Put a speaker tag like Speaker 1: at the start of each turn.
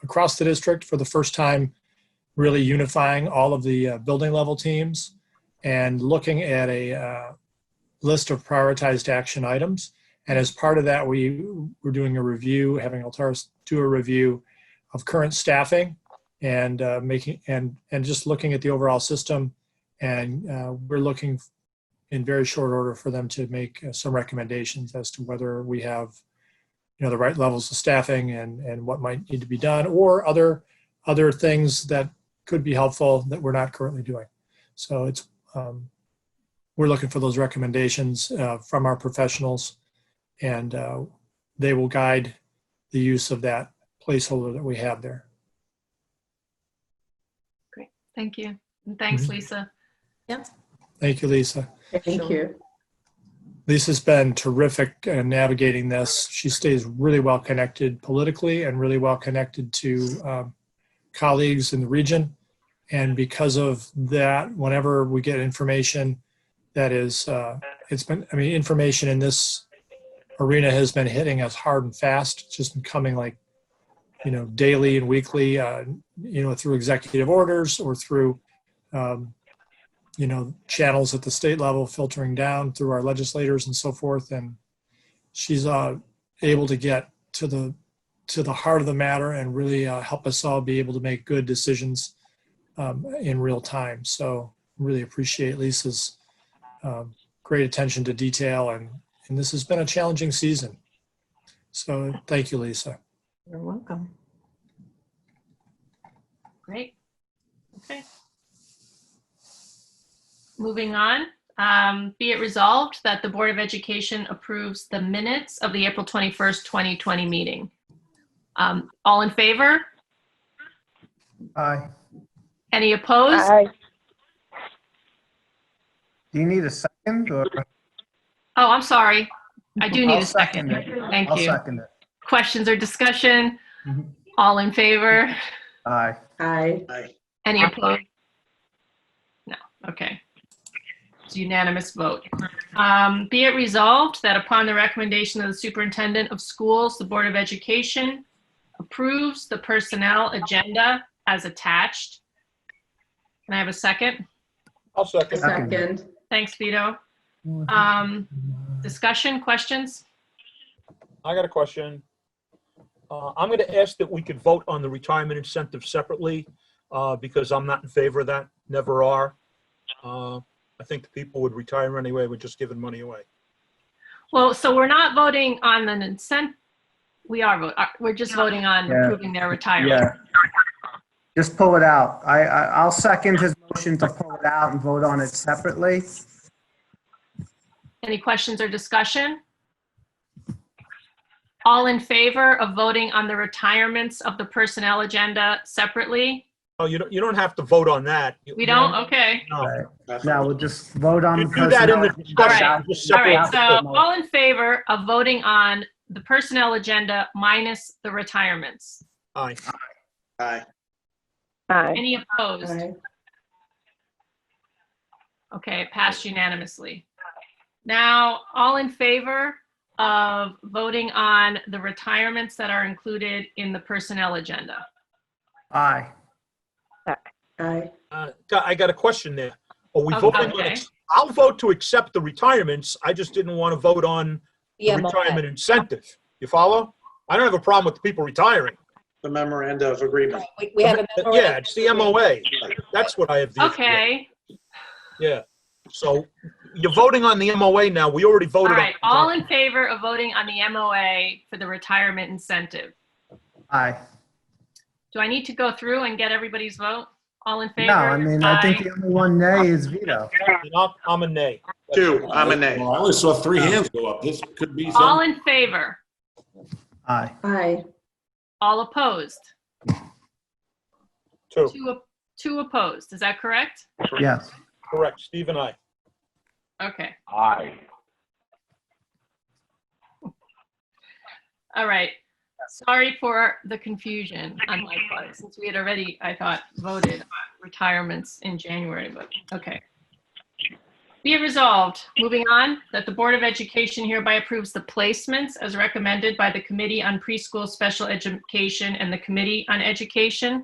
Speaker 1: across the district for the first time, really unifying all of the uh, building level teams and looking at a uh, list of prioritized action items. And as part of that, we were doing a review, having Altaris do a review of current staffing and uh, making and and just looking at the overall system. And uh, we're looking in very short order for them to make uh, some recommendations as to whether we have you know the right levels of staffing and and what might need to be done or other other things that could be helpful that we're not currently doing so it's um, we're looking for those recommendations uh, from our professionals and uh, they will guide the use of that placeholder that we have there
Speaker 2: Thank you. And thanks,
Speaker 1: Mhm.
Speaker 2: Lisa.
Speaker 1: thank you lisa
Speaker 3: Thank you.
Speaker 1: Lisa's been terrific uh, navigating this. She stays really well connected politically and really well connected to um, colleagues in the region. And because of that, whenever we get information that is, uh, it's been, I mean, information in this arena has been hitting us hard and fast. It's just been coming like, you know, daily and weekly, uh, you know, through executive orders or through um, you know, channels at the state level filtering down through our legislators and so forth. And she's uh, able to get to the to the heart of the matter and really uh, help us all be able to make good decisions um, in real time. So really appreciate Lisa's um, great attention to detail and and this has been a challenging season. So thank you, Lisa.
Speaker 3: You're welcome.
Speaker 2: Great. Okay. Moving on, um, be it resolved that the Board of Education approves the minutes of the April 21st, 2020 meeting. Um, All in favor?
Speaker 4: Aye.
Speaker 2: Any opposed?
Speaker 4: Do you need a second or?
Speaker 2: Oh, I'm sorry. I do need
Speaker 4: I'll
Speaker 2: a second.
Speaker 4: second
Speaker 2: Thank
Speaker 4: I'll
Speaker 2: you.
Speaker 4: second it.
Speaker 2: Questions or discussion?
Speaker 4: Mhm.
Speaker 2: All in favor?
Speaker 4: Aye.
Speaker 3: Aye.
Speaker 2: Any opposed? No, okay. It's unanimous vote. Um, Be it resolved that upon the recommendation of the superintendent of schools, the Board of Education approves the personnel agenda as attached. Can I have a second?
Speaker 5: I'll second.
Speaker 3: Second.
Speaker 2: Thanks, Vito. Um, Discussion, questions?
Speaker 5: I got a question. Uh, I'm going to ask that we could vote on the retirement incentive separately, uh, because I'm not in favor of that, never are. Uh, I think the people would retire anyway, we're just giving money away.
Speaker 2: Well, so we're not voting on an incentive. We are, vo- uh, we're just voting on
Speaker 4: Yeah.
Speaker 2: approving their retirement.
Speaker 4: Yeah. Just pull it out. I, I, I'll second his motion to pull it out and vote on it separately.
Speaker 2: Any questions or discussion? All in favor of voting on the retirements of the personnel agenda separately?
Speaker 5: Oh, you don't, you don't have to vote on that. You-
Speaker 2: We don't? Okay.
Speaker 5: No.
Speaker 4: Now we'll just vote on the
Speaker 5: You do that in
Speaker 4: personnel.
Speaker 5: the discussion.
Speaker 2: Alright.
Speaker 5: just
Speaker 2: All
Speaker 5: separate
Speaker 2: right,
Speaker 5: out the
Speaker 2: so
Speaker 5: vote.
Speaker 2: all in favor of voting on the personnel agenda minus the retirements?
Speaker 5: Aye.
Speaker 6: Aye.
Speaker 2: Any opposed?
Speaker 3: Aye.
Speaker 2: Okay, it passed unanimously. Now, all in favor of voting on the retirements that are included in the personnel agenda?
Speaker 4: Aye.
Speaker 3: Aye.
Speaker 5: Uh, got- I got a question there. Are we
Speaker 2: Oh,
Speaker 5: voting on,
Speaker 2: okay.
Speaker 5: ex- I'll vote to accept the retirements, I just didn't want to vote on the
Speaker 7: Yeah,
Speaker 5: retirement incentive. You follow? I don't have a problem with the people retiring.
Speaker 8: The memoranda of agreement.
Speaker 7: we, we have a memorandum.
Speaker 5: Yeah, it's the MOA. That's what I have. the issue with.
Speaker 2: Okay.
Speaker 5: Yeah. So you're voting on the MOA now. We already
Speaker 2: All
Speaker 5: voted on.
Speaker 2: right, all in favor of voting on the MOA for the retirement incentive?
Speaker 4: Aye.
Speaker 2: Do I need to go through and get everybody's vote? All in favor?
Speaker 4: No, I mean, I think
Speaker 2: Aye.
Speaker 4: the only one nay is veto.
Speaker 5: And I'm- I'm a nay.
Speaker 8: Two, I'm a nay.
Speaker 9: Well, I only saw three hands go up. This could be
Speaker 2: All
Speaker 9: something.
Speaker 2: in favor?
Speaker 4: Aye.
Speaker 3: Aye.
Speaker 2: All opposed?
Speaker 5: Two.
Speaker 2: Two, op- two opposed, is that correct?
Speaker 4: Yes.
Speaker 5: Correct. Steve and I.
Speaker 2: Okay,
Speaker 9: Aye.
Speaker 2: all right. Sorry for the confusion on my part, since we had already, I thought, voted on retirements in January, but, okay. Be it resolved, moving on, that the Board of Education hereby approves the placements as recommended by the Committee on Preschool Special Education and the Committee on Education